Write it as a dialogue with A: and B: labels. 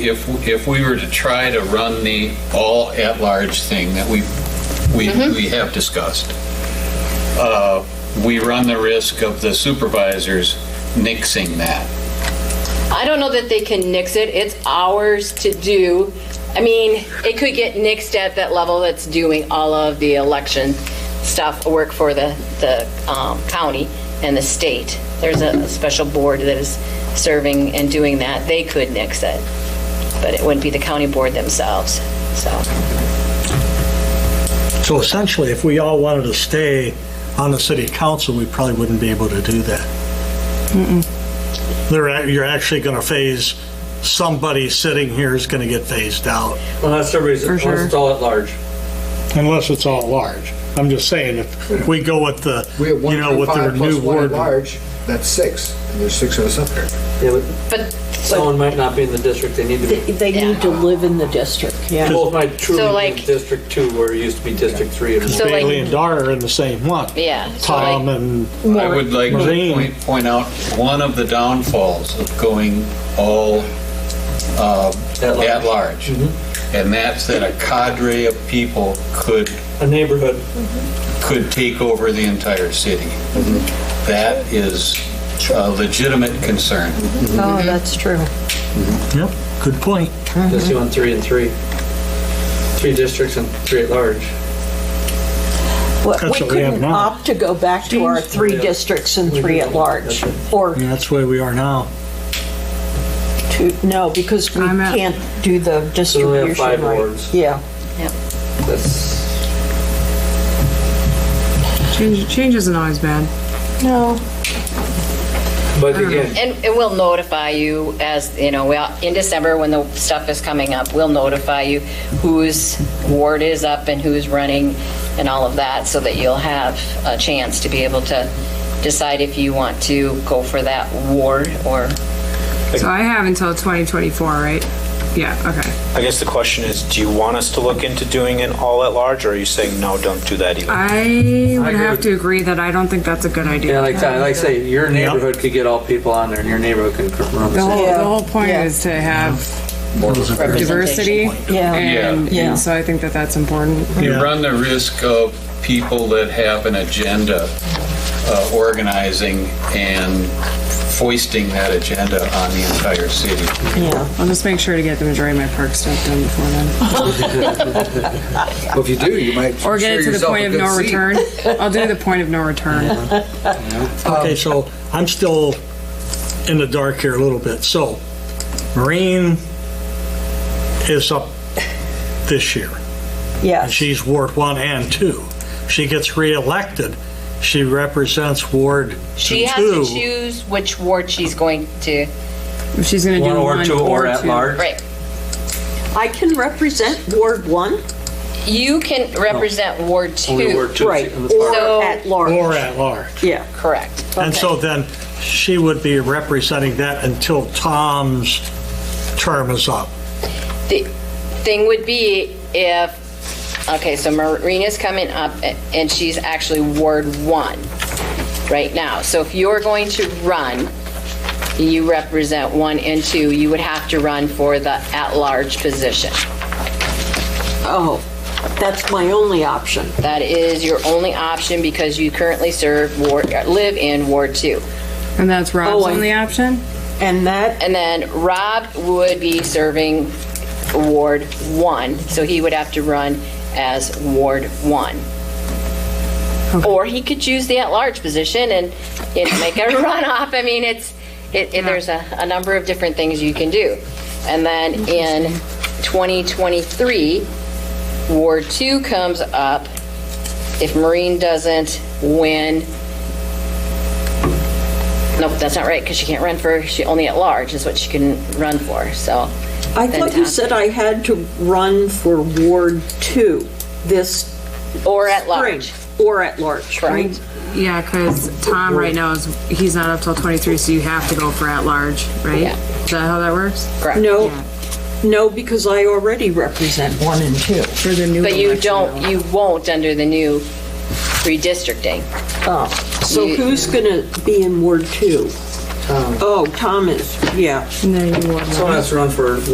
A: If, if we were to try to run the all-at-large thing that we, we, we have discussed, uh, we run the risk of the supervisors nixing that.
B: I don't know that they can nix it. It's ours to do. I mean, it could get nixed at that level that's doing all of the election stuff, work for the, the um, county and the state. There's a special board that is serving and doing that. They could nix it, but it wouldn't be the county board themselves, so.
C: So essentially, if we all wanted to stay on the city council, we probably wouldn't be able to do that. They're, act- you're actually going to phase, somebody sitting here is going to get phased out.
D: Unless everybody's,
E: For
D: unless
E: sure.
D: it's all at large.
C: Unless it's all large. I'm just saying, if we go with the,
F: We have
C: you know, with their
F: 1.5 plus
C: new
F: one
C: ward.
F: at large, that's six, and there's six of us up there.
D: Yeah, but
B: But,
D: someone might not be in the district, they need to be.
G: They- They need to live in the district. Yeah.
D: Both might truly
B: So,
D: be in
B: like-
D: District Two, where it used to be District Three. and
B: So,
D: more.
B: like-
C: Bailey and Dar are in the same one.
B: Yeah, so
C: Tom
B: like-
C: and,
A: I would like to
C: Marine.
A: point, point out one of the downfalls of going all uh,
D: At large.
A: at large. And that's that a cadre of people could,
D: A neighborhood.
A: could take over the entire city.
D: Mm-hmm.
A: That is a legitimate concern.
E: Oh, that's true.
C: yep, good point.
E: Mm-hmm.
D: Just doing three and three. Three districts and three at large.
G: Well,
C: That's
G: We
C: what we have
G: couldn't
C: now.
G: opt to go back to our three
D: Yeah.
G: districts and three at large, or
C: And that's where we are now.
G: two, no, because we
E: I'm at-
G: can't do the
D: So we have
G: distribution
D: five
G: right.
D: wards.
G: Yeah,
D: That's,
E: Change, change isn't always bad.
G: no,
D: but again,
B: and, and we'll notify you as, you know, we, all- in December, when the stuff is coming up, we'll notify you whose ward is up and who's running and all of that, so that you'll have a chance to be able to decide if you want to go for that ward or
E: So I have until 2024, right? Yeah, okay.
H: I guess the question is, do you want us to look into doing an all at large, or are you saying, no, don't do that either?
E: I
D: I
E: would
D: agree
E: have
D: with-
E: to agree that I don't think that's a good idea.
D: yeah, like, I- like I say, your neighborhood could get all people on there, and your neighborhood can run.
E: The whole,
D: it.
E: the whole point
G: Yeah.
E: is to have diversity,
B: representation.
G: yeah.
E: and,
G: Yeah.
E: and so I think that that's important.
A: You
C: Yeah.
A: run the risk of people that have an agenda uh, organizing and foisting that agenda on the entire city.
E: I'll just make sure to get the majority of my park stuff done before then,
F: Well, if you do, you might.
E: or
F: secure
E: get it to the
F: yourself
E: point
F: a
E: of
F: good
E: no
F: seat.
E: return. I'll do the point of no return.
C: Okay, so I'm still in the dark here a little bit. So Marine is up this year. and
G: yes.
C: She's Ward 1 and 2. She gets reelected. She represents Ward 2.
B: She has to choose which ward she's going to,
E: If she's gonna do
D: One
E: one
D: or two or at large.
B: right.
G: I can represent Ward 1
B: You can represent Ward
D: Only
B: Two,
D: ward two.
G: Right.
D: in the
G: or
D: park.
B: So-
G: at large.
C: Or at large.
G: Yeah,
B: correct.
C: And so then she would be representing that until Tom's term is up.
B: The thing would be if, okay, so Marina's coming up a- and she's actually Ward 1 right now. So if you're going to run, you represent 1 and 2, you would have to run for the at-large position.
G: oh, that's my only option.
B: That is your only option because you currently serve Ward, uh, live in Ward 2.
E: And that's Rob's
G: Oh, I-
E: only option?
G: And that,
B: And then Rob would be serving Ward 1, so he would have to run as Ward 1. Or he could choose the at-large position and, you know, make a runoff. I mean, it's, it, it- there's a, a number of different things you can do. And then in 2023, Ward 2 comes up. If Marine doesn't win Nope, that's not right, because she can't run for, she only at large is what she can run for, so.
G: I thought you said I had to run for Ward 2 this
B: Or at
G: spring.
B: large.
G: Or at large, right?
B: Correct.
E: Yeah, because Tom right now is, he's not up till 23, so you have to go for at large, right?
B: Yeah.
E: Is that how that works?
B: Correct.
G: No,
E: Yeah.
G: no, because I already represent 1 and 2.
E: For the new
B: But you
E: election,
B: don't,
E: though.
B: you won't under the new redistricting.
G: Oh, so
B: You-
G: who's going to be in Ward 2? Oh, Tom is, yeah.
E: No, you won't.
D: Someone has to run for